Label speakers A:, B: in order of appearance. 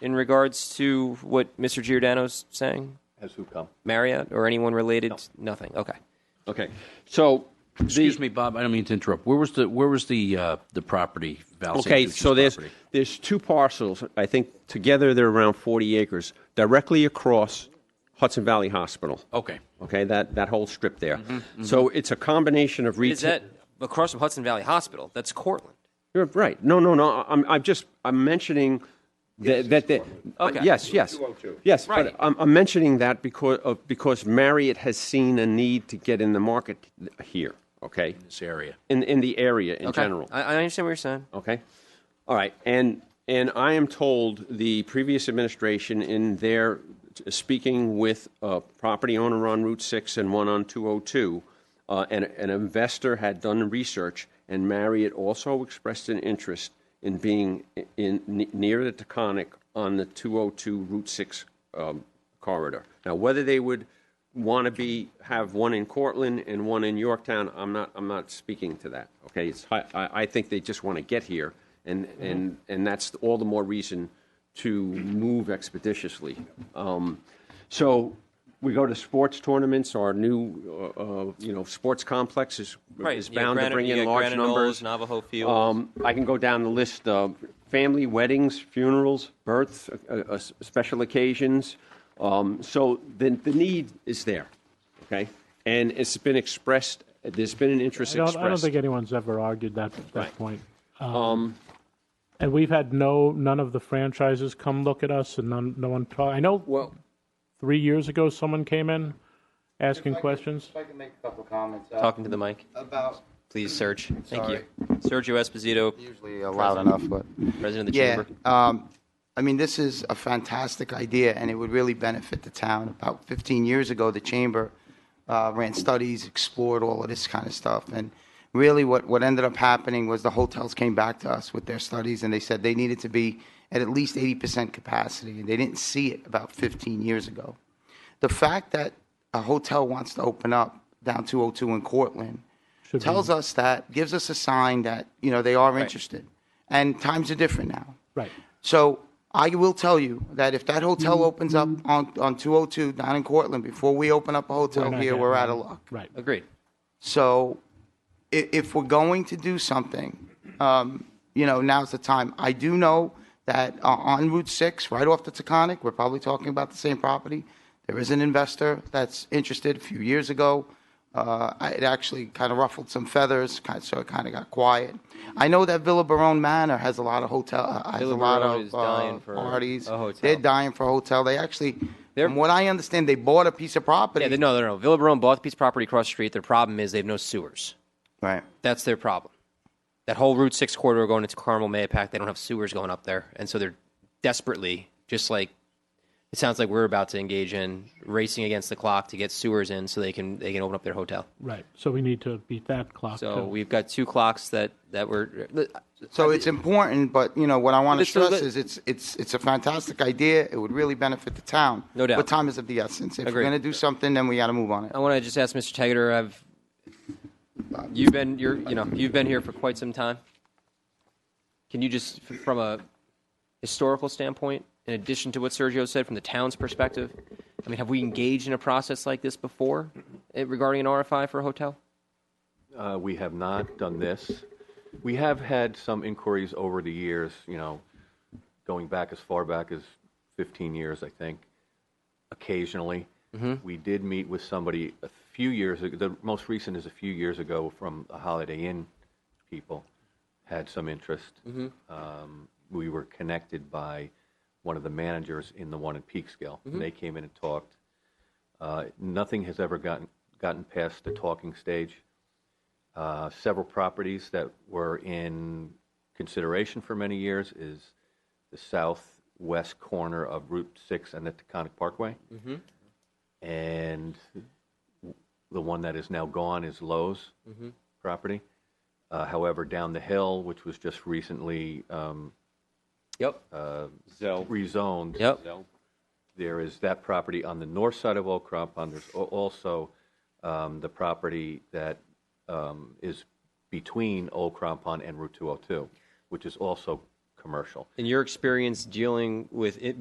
A: in regards to what Mr. Giordano's saying?
B: Has who come?
A: Marriott or anyone related? Nothing. Okay.
B: Okay, so. the-
C: Excuse me, Bob, I don't mean to interrupt. Where was the, where was the, uh, the property, Val St.
B: Okay,
C: Lucia's
B: so there's,
C: property?
B: there's two parcels, I think together they're around 40 acres, directly across Hudson Valley Hospital.
C: Okay. Mm-hmm,
B: Okay, that, that whole strip there. So it's a combination of retail.
A: Is that across from Hudson Valley Hospital? That's Cortland.
B: You're right. No, no, no. I'm, I'm just, I'm mentioning that, that, that
A: Okay.
B: yes, yes. Yes,
A: Right.
B: but I'm, I'm mentioning that because of, because Marriott has seen a need to get in the market here, okay?
C: This area.
B: In, in the area in
A: Okay.
B: general.
A: I, I understand what you're saying.
B: Okay. All right. And and I am told the previous administration, in their speaking with a property owner on Route Six and one on two hundred two, uh, and an investor had done research, and Marriott also expressed an interest in being in, in near the Taconic on the two hundred two Route Six um, corridor. Now, whether they would want to be have one in Cortland and one in Yorktown. I'm not I'm not speaking to that. Okay, it's, I, I I think they just want to get here, and and and that's all the more reason to move expeditiously. Um, so we go to sports tournaments. Our new uh, uh, you know sports complex is
A: Right.
B: is
A: You got
B: bound
A: Granite-
B: to bring
A: you
B: in
A: got
B: large
A: Granite Knolls,
B: numbers.
A: Navajo Field.
B: Um, I can go down the list of family weddings, funerals, births, uh, uh, s- special occasions. Um, so the, the need is there, okay? And it's been expressed, there's been an interest
D: I don't, I don't
B: expressed.
D: think anyone's ever argued that that point.
B: Um,
D: And we've had no none of the franchises come look at us, and none, no one talk. I know
B: Well,
D: three years ago someone came in asking
E: If I could-
D: questions.
E: If I can make a couple comments. uh,
A: Talking to the mic.
E: About,
A: Please, Serge. Thank you. Sergio Esposito,
E: usually uh, loud enough, but.
A: president of the
E: Yeah,
A: chamber.
E: um, I mean, this is a fantastic idea, and it would really benefit the town. About 15 years ago, the chamber uh, ran studies, explored all of this kind of stuff, and really what, what ended up happening was the hotels came back to us with their studies, and they said they needed to be at at least 80% capacity, and they didn't see it about 15 years ago. The fact that a hotel wants to open up down 202 in Cortland
D: Should be-
E: tells us that, gives us a sign that, you know, they are interested. And times are different now.
D: Right.
E: So I will tell you that if that
D: Mm-hmm.
E: hotel opens up on, on 202 down in Cortland, before we open up a hotel
D: We're not
E: here, we're out
D: getting
E: of
D: it.
E: luck.
D: Right.
A: Agreed.
E: So if, if we're going to do something, um, you know, now's the time. I do know that uh, on Route 6, right off the Taconic, we're probably talking about the same property. There is an investor that's interested a few years ago. Uh, I- it actually kind of ruffled some feathers, kind so it kind of got quiet. I know that Villa Barone Manor has a lot of hotel, uh, has
A: Villa
E: a lot
A: Barone
E: of
A: is dying
E: uh,
A: for
E: parties.
A: a hotel.
E: They're dying for a hotel. They actually,
A: They're-
E: from what I understand, they bought a piece of property.
A: Yeah, they, no, no, no. Villa Barone bought the piece of property across the street. Their problem is they have no sewers.
E: Right.
A: That's their problem. That whole Route 6 corridor going into Carmel, Mayapack, they don't have sewers going up there. And so they're desperately, just like it sounds like we're about to engage in, racing against the clock to get sewers in so they can they can open up their hotel.
D: Right. So we need to beat that clock.
A: So
D: too.
A: we've got two clocks that, that were.
E: So it's important, but you know what I want to
A: But it's still
E: stress
A: good.
E: is it's it's it's a fantastic idea. It would really benefit the town.
A: No doubt.
E: But time is of the essence. If
A: Agreed.
E: we're going to do something, then we got to move on it.
A: I want to just ask Mr. Taggart. I've you've been you're you know you've been here for quite some time. Can you just f- from a historical standpoint, in addition to what Sergio said from the town's perspective, I mean, have we engaged in a process like this before eh, regarding an RFI for a hotel?
F: Uh, we have not done this. We have had some inquiries over the years, you know, going back as far back as 15 years, I think, occasionally. We did meet with somebody a few years ago, the most recent is a few years ago from the Holiday Inn people, had some interest. Um, we were connected by one of the managers in the one in Peekskill. and They came in and talked. Uh, nothing has ever gotten, gotten past the talking stage uh, several properties that were in consideration for many years is the southwest corner of Route 6 and the Taconic Parkway. And the one that is now gone is Lowe's property. Uh, However, down the hill, which was just recently um,
A: Yep. Uh,
F: rezoned.
A: Yep.
F: There is that property on the north side of Old Crampon. There's al- also um, the property that um, is between Old Crampon and Route 202, which is also commercial.
A: In your experience dealing with it,